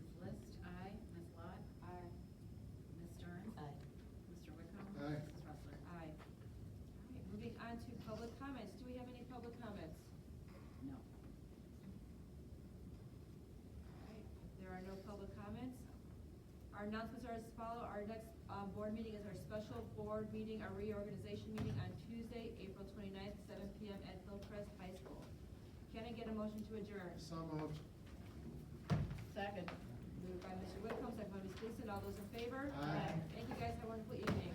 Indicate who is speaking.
Speaker 1: Our announcements are as follow. Our next, uh, board meeting is our special board meeting, our reorganization meeting on Tuesday, April 29th, seven PM at Hillcrest High School. Can I get a motion to adjourn?
Speaker 2: So moved.
Speaker 3: Second.
Speaker 1: Moved by Mr. Whitcomb, second by Ms. Gleason. All those in favor?
Speaker 2: Aye.
Speaker 1: Thank you guys. Have a wonderful evening.